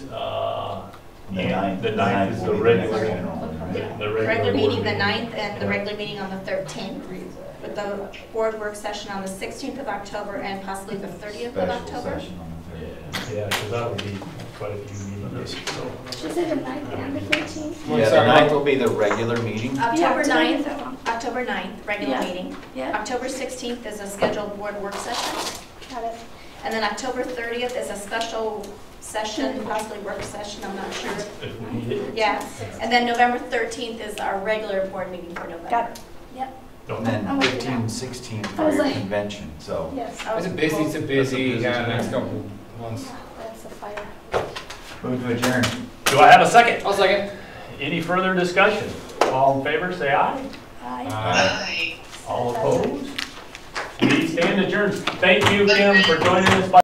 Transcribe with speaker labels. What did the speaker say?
Speaker 1: Uh,
Speaker 2: The ninth-
Speaker 1: The ninth is the
Speaker 2: will be next
Speaker 1: regular,
Speaker 2: general meeting.
Speaker 1: the
Speaker 3: Regular
Speaker 1: regular
Speaker 3: meeting
Speaker 1: board
Speaker 3: the
Speaker 1: meeting.
Speaker 3: 9th and the regular meeting on the 13th, with the board work session on the 16th of October and possibly the 30th of
Speaker 2: Special
Speaker 3: October.
Speaker 2: session on the thirtieth.
Speaker 1: Yeah, because that would be quite a few meetings, so.
Speaker 4: She said the ninth and the thirteenth.
Speaker 5: Yeah, the
Speaker 6: Sorry.
Speaker 5: ninth will be the regular meeting.
Speaker 3: October 9th, October 9th, regular
Speaker 4: Yeah.
Speaker 3: meeting.
Speaker 4: Yeah,
Speaker 3: October 16th is a scheduled board work session,
Speaker 4: got it.
Speaker 3: and then October 30th is a special session, possibly work session, I'm not sure.
Speaker 1: If we need it.
Speaker 3: Yeah, and then November 13th is our regular board meeting for November.
Speaker 4: Got Yep,
Speaker 1: Don't-
Speaker 5: And then
Speaker 4: I'll wait for that.
Speaker 5: 15, 16
Speaker 4: I
Speaker 5: for
Speaker 4: was
Speaker 5: your
Speaker 4: like-
Speaker 5: convention, so.
Speaker 4: yes.
Speaker 3: Oh,
Speaker 6: It's a busy,
Speaker 3: well,
Speaker 6: it's a busy,
Speaker 1: That's a busy
Speaker 6: yeah,
Speaker 1: time.
Speaker 6: next couple months.
Speaker 4: That's the fire.
Speaker 2: Move to adjourn.
Speaker 1: Do I have a second?
Speaker 6: I'll second.
Speaker 1: Any further discussion? All in favor, say aye.
Speaker 4: Aye.
Speaker 6: Uh,
Speaker 1: All opposed? We stand adjourned. Thank you, Kim, for joining us.